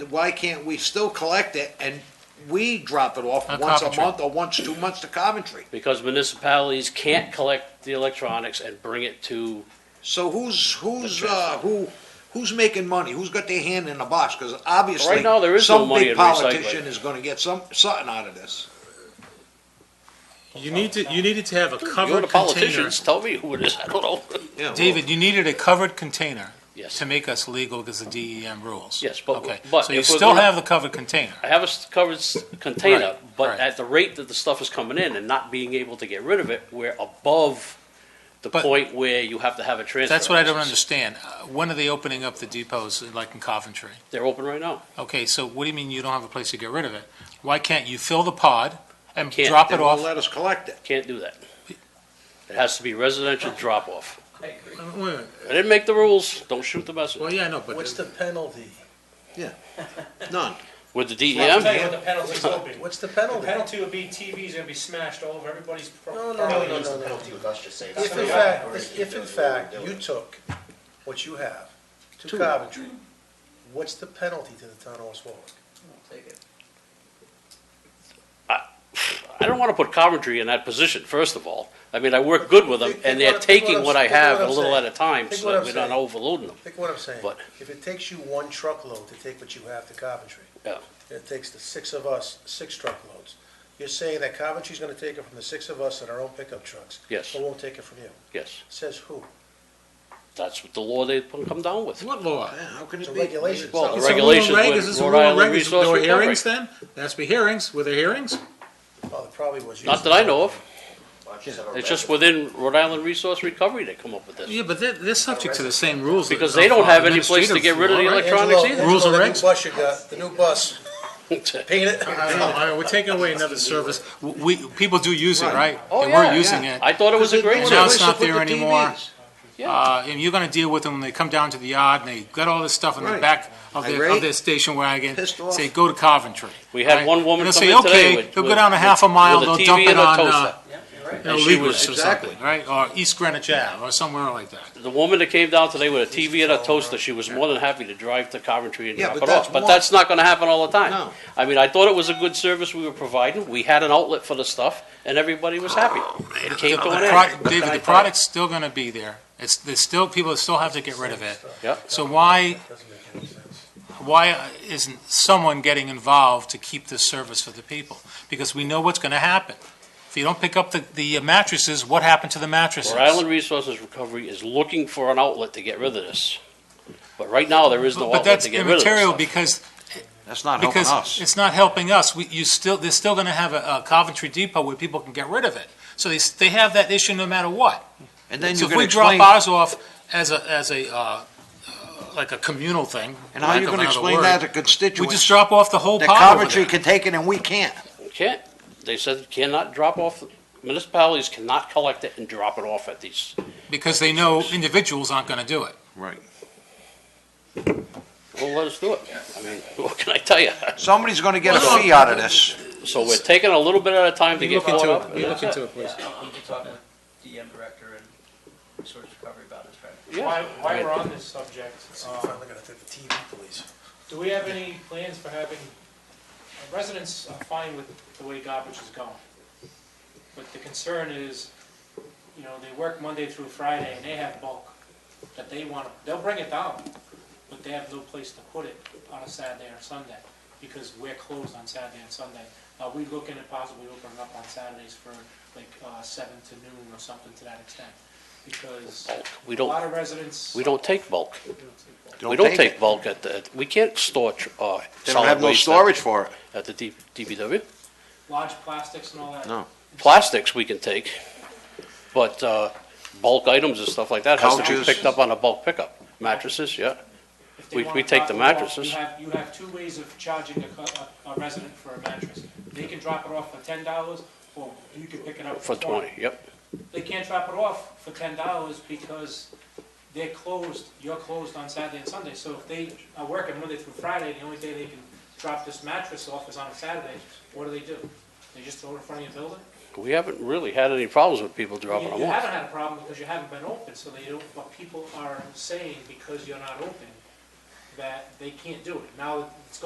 why can't we still collect it and we drop it off On once a Coventry. month or once, two months to Coventry? because municipalities can't collect the electronics and bring it to, So who's, who's, That's uh, who, who's making money? Who's got their hand in the box? Because obviously. Right now, there is no money in Some big recycling. politician is gonna get some, something out of this. You need to, you needed to have a you're the covered container. politicians, tell me who it is, I don't know. Yeah, well, David, you needed a covered container Yes, to make us legal because of DEM rules. Yes, but- Okay, but so you if we're still gonna- have the covered container. I have a s- covered s- container, Right, but right. at the rate that the stuff is coming in and not being able to get rid of it, we're above the But- point where you have to have a transfer. That's what I don't license. understand. Uh, When are they opening up the depots, like in Coventry? They're open right now. Okay, so what do you mean you don't have a place to get rid of it? Why can't you fill the pod and Can't. drop They it won't off? let us collect it. Can't do that. It has to be residential drop-off. Uh, wait a minute. I didn't make the rules, don't shoot the messenger. Well, yeah, I know, but What's the penalty? None. With the E I'll tell you DEM, what the penalty will be. What's the The penalty? penalty would be TV's gonna be smashed over, everybody's. pro- No, no, property no, is gonna no, no, be no. penalty with us, just say that's. If in fact, if in fact you took what you have to Coventry, what's the penalty to the town of West Warwick? I don't wanna put Coventry in that position, first of all. I mean, I work good with them, Think- think and they're what- think what taking I'm- what I think what have a I'm little at saying. a time, Think so what that I'm we're not saying. overloading them. Think what I'm saying? But- If it takes you one truckload to take what you have to Coventry, Yeah. and it takes the six of us, six truckloads, you're saying that Coventry's gonna take it from the six of us in our own pickup trucks? Yes. But won't take it from you? Yes, Says who? that's what the law they put- come down with. What law? Yeah, How can It's it a be? regulation. It's Well, not- the It's a rule regulations and reg- with is this a Rhode rule and Island reg? Is- Resource There were Recovery. hearings then? There has to be hearings. Were there hearings? Oh, there probably was. Not that I know of, it's just within Rhode Island Resource Recovery they come up with this. Yeah, but they're, they're subject to the same rules. that Because are they don't have any administrative place to get rid of the law, right? electronics Angelo- either. Rules and Angelo, the new regs. bus you got, the new bus, paint it. I don't know. All right, We're taking away another service. W- We, people do use it, right? Oh, They yeah, were using yeah. it. I thought it was a great Now They service. it's not put the there anymore. TVs. Uh, and you're gonna deal with them when they come down to the yard and they got all this stuff in the Right. back of their, Irate. of their station wagon. Pissed off. Say, go to Coventry. We had right? one woman And come they'll in say, today okay, with. They'll go with- down a half a mile, with they'll dump TV it and a on, toaster. uh, you know, And she Leavenworth was- or exactly. something, right? Or East Greenwich Ave or somewhere like that. The woman that came down today with a TV and a toaster, she was more than happy to drive to Coventry and Yeah, drop but it that's off. But one- that's not gonna happen all the time. No. I mean, I thought it was a good service we were providing. We had an outlet for the stuff and everybody was happy. The- It came to the an pro- end. What can David, I the tell you? product's still gonna be there. It's, there's still, people still have to get rid of it. Yep. So why, Doesn't make any sense. why isn't someone getting involved to keep this service for the people? Because we know what's gonna happen. If you don't pick up the, the mattresses, what happened to the mattresses? Rhode Island Resources Recovery is looking for an outlet to get rid of this. But right now, there is no But outlet that's to get rid of this immaterial stuff. because That's not helping because us. it's not helping us. We, you still, they're still gonna have a, a Coventry Depot where people can get rid of it. So they, s- they have that issue no matter what. And then So you if can we drop explain, ours off as a, as a, uh, uh, like a communal thing. and how lack you of gonna another explain word, that to We just constituents? drop off the whole That pot over Coventry there. can take it and we can't. Can't, they said cannot drop off, municipalities cannot collect it and drop it off at these. Because they know individuals aren't gonna do it. Right. Well, let us do it. I mean, what can I tell you? Somebody's gonna get a fee out of this. So we're taking a little bit at a time to We get look caught into up. it, and we that's look it. into it, please. Yeah, you can talk with DM director and resource recovery about his practice. Yeah. Why, why we're on this subject, I'm um, finally gonna take the TV, please. do we have any plans for having, uh, residents are fine with the way garbage is going. But the concern is, you know, they work Monday through Friday and they have bulk that they want, they'll bring it down, but they have no place to put it on a Saturday or Sunday because we're closed on Saturday and Sunday. Are we looking at possibly opening up on Saturdays for like uh, seven to noon or something to that extent? Because Bulk. We a don't, lot of residents. we don't take bulk. We Don't don't take take it. bulk at the, we can't store, tr- uh, They don't have solid no waste storage at, for it. at the D- DPW. Large plastics and all that. No. Plastics we can take, but, uh, bulk items and stuff like that has to be Couches. picked up on a bulk pickup. Mattresses, yeah. If they We- want we to take drop the it off, mattresses. You have, you have two ways of charging a, cu- a a resident for a mattress. They can drop it off for ten dollars, or you can pick it up For twenty, yep. They can't drop it off for ten dollars because they're closed, you're closed on Saturday and Sunday. So if they are working Monday through Friday, the only day they can drop this mattress off is on a Saturday, what do they do? They just throw it in front of your building? We haven't really had any problems with people You dropping them you off. haven't had a problem because you haven't been open, so they don't, but people are saying because you're not open, that they can't do it. Now, it's